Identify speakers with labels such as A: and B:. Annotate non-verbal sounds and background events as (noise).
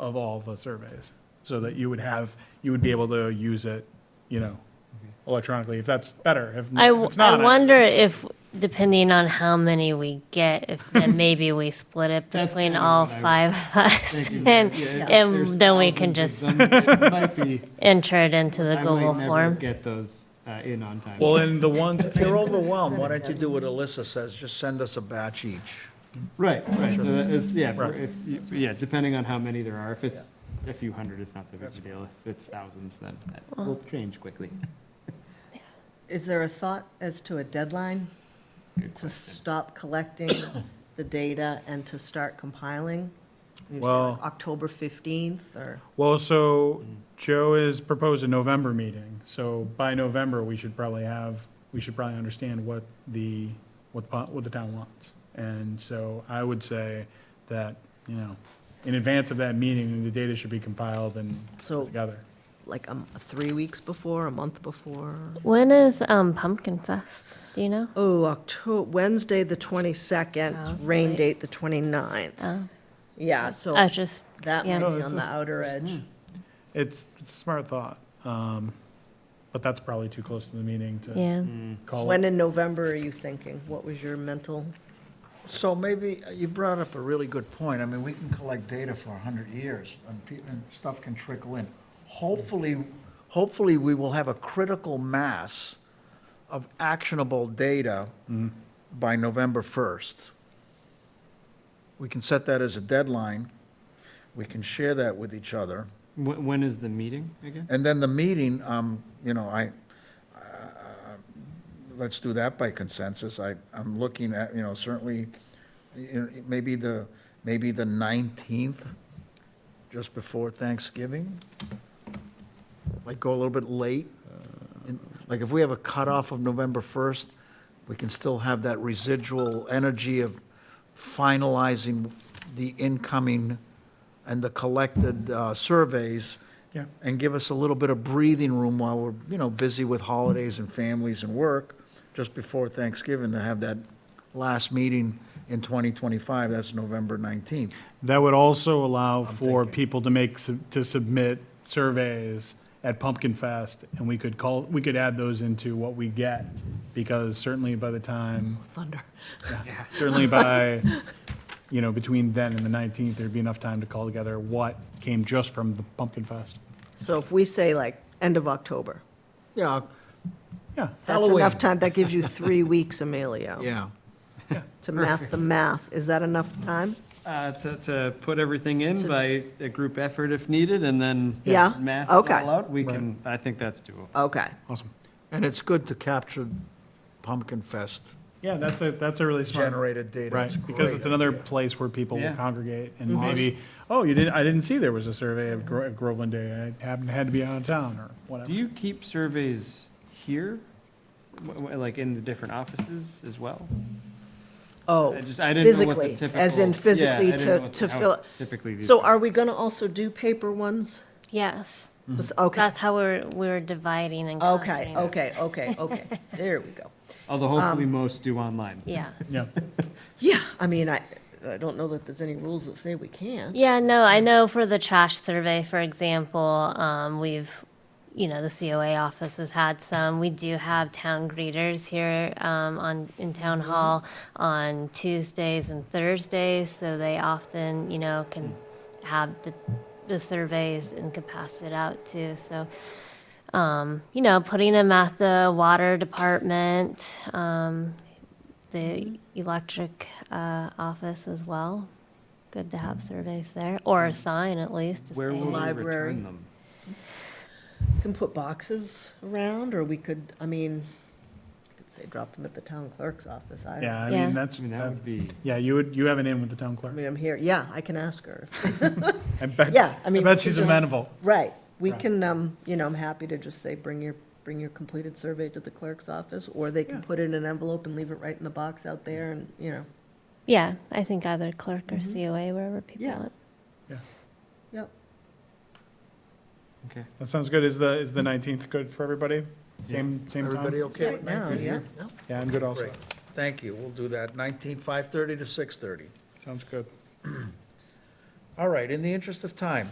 A: of all the surveys, so that you would have, you would be able to use it, you know, electronically, if that's better. If
B: I,
A: if
B: w-
A: it's
B: I
A: not, I-
B: wonder if, depending on how many we get, if
A: (laughs)
B: then maybe we split it
C: That's
B: between
C: kinda
B: all
C: what I was
B: five
C: (laughs)
B: of us (laughs)
C: Thinking
B: and,
C: that, yeah, if there's
B: and then we can
C: thousands
B: just
C: of them, it
B: (laughs)
C: might be-
B: enter it into the
C: I
B: Google
C: might never
B: form.
C: Get those uh, in on time.
A: well, in the ones,
D: If you're overwhelmed, why don't you do what Alyssa says, just send us a batch each.
C: Right, right, so that is, yeah, for-
A: Right.
C: if, you- yeah, depending on how many there are, if it's a few hundred, it's not that big of a deal, if it's thousands, then that will change quickly.
E: Is there a thought as to a deadline
C: Good
E: to
C: question.
E: stop collecting the data and to start compiling? You say, like,
A: Well-
E: October 15th or?
A: well, so Joe has proposed a November meeting, so by November, we should probably have, we should probably understand what the, what, the po- what the town wants. And so I would say that, you know, in advance of that meeting, the data should be compiled and
E: So-
A: put together.
E: Like um, three weeks before, a month before?
B: When is um, Pumpkin Fest? Do you know?
E: Oh, Octo, Wednesday, the 22nd, rain date, the 29th. Yeah, so
B: I was just,
E: that might
B: yeah.
E: be
A: No, it's
E: on the
A: just-
E: outer edge.
A: It's, it's a smart thought, um, but that's probably too close to the meeting to
B: yeah.
E: Mm.
A: call
E: When
A: it.
E: in November are you thinking? What was your mental?
D: So maybe, uh, you brought up a really good point. I mean, we can collect data for 100 years, and pe- and stuff can trickle in. Hopefully, hopefully, we will have a critical mass of actionable data by November 1st. We can set that as a deadline. We can share that with each other.
C: When, when is the meeting again?
D: And then the meeting, um, you know, I, uh, let's do that by consensus. I, I'm looking at, you know, certainly, you know, maybe the, maybe the 19th, just before Thanksgiving? Like go a little bit late? And, Like if we have a cutoff of November 1st, we can still have that residual energy of finalizing the incoming and the collected uh, surveys
A: Yeah.
D: and give us a little bit of breathing room while we're, you know, busy with holidays and families and work, just before Thanksgiving, to have that last meeting in 2025, that's November 19th.
A: That would also allow for people to make, sub- to submit surveys at Pumpkin Fest, and we could call, we could add those into what we get, because certainly by the time,
E: (laughs) Thunder.
A: certainly by, you know, between then and the 19th, there'd be enough time to call together what came just from the Pumpkin Fest.
E: So if we say like end of October,
D: Yeah,
A: Yeah,
E: that's
D: Halloween.
E: enough time, that gives you three
A: (laughs)
E: weeks, Emilio.
D: yeah.
E: To math the math, is that enough time?
C: Uh, to, to put everything in by a group effort if needed, and then.
E: Yeah,
C: Math it
E: okay.
C: all out, we can, I think that's doable.
E: Okay.
A: awesome.
D: And it's good to capture Pumpkin Fest
A: Yeah, that's a, that's a really smart.
D: generated data.
A: Right,
D: It's
A: because
D: great.
A: it's another place where people will
C: Yeah.
A: congregate and maybe, oh, you didn't, I didn't see there was a survey of Gro- of Groveland Day. I happened, had to be out of town or
C: Do
A: whatever.
C: you keep surveys here, W- w- like in the different offices as well?
E: Oh,
C: I just- I didn't know what the
E: physically, as
C: typical- yeah, I
E: in physically
C: didn't
E: to-
C: know what the-
E: to
C: how
E: fill-
C: Typically. these
E: so
C: things-
E: are we going to also do paper ones?
B: Yes.
C: Mm-hmm.
E: This- Okay,
B: That's how we're, we're dividing and
E: okay,
B: conquering.
E: okay, okay, okay. There we go.
C: Although
E: um,
C: hopefully most do online.
B: Yeah.
A: Yeah,
E: Yeah, I mean, I, I don't know that there's any rules that say we can't.
B: Yeah, no, I know for the trash survey, for example, um, we've, you know, the COA office has had some. We do have town greeters here, um, on, in town hall on Tuesdays and Thursdays, so they often, you know, can have the, the surveys and could pass it out too, so. Um, you know, putting them at the water department, um, the electric, uh, office as well, Good to have surveys there, or a sign at least to
C: Mm-hmm. Where will
B: say.
C: we
E: Library.
C: return them?
E: We Can put boxes around, or we could, I mean, I could say drop them at the town clerk's office. I don't,
A: yeah, I
B: Yeah.
A: mean, that's,
C: I mean, that
A: that's-
C: would be,
A: yeah, you would, you have an in with the town
E: I
A: clerk.
E: mean, I'm here, yeah, I can ask her.
A: I bet,
E: Yeah, I
A: I
E: mean,
A: bet
E: she
A: she's
E: just-
A: amenable.
E: Right, we
A: Right.
E: can, um, you know, I'm happy to just say, bring your, bring your completed survey to the clerk's office, or they can
A: Yeah.
E: put it in an envelope and leave it right in the box out there, and, you know,
B: Yeah, I think either clerk or
C: Mm-hmm.
B: COA, wherever people
E: Yeah.
B: want.
E: yep.
C: okay.
A: That sounds good. Is the, is the 19th good for everybody? Same, same time?
D: Everybody okay
E: Right
D: with
E: now,
D: 19th?
E: yeah.
A: Yeah, I'm good also.
D: Great, thank you, we'll do that, 19, 5:30 to 6:30.
A: Sounds good.
D: All right, in the interest of time,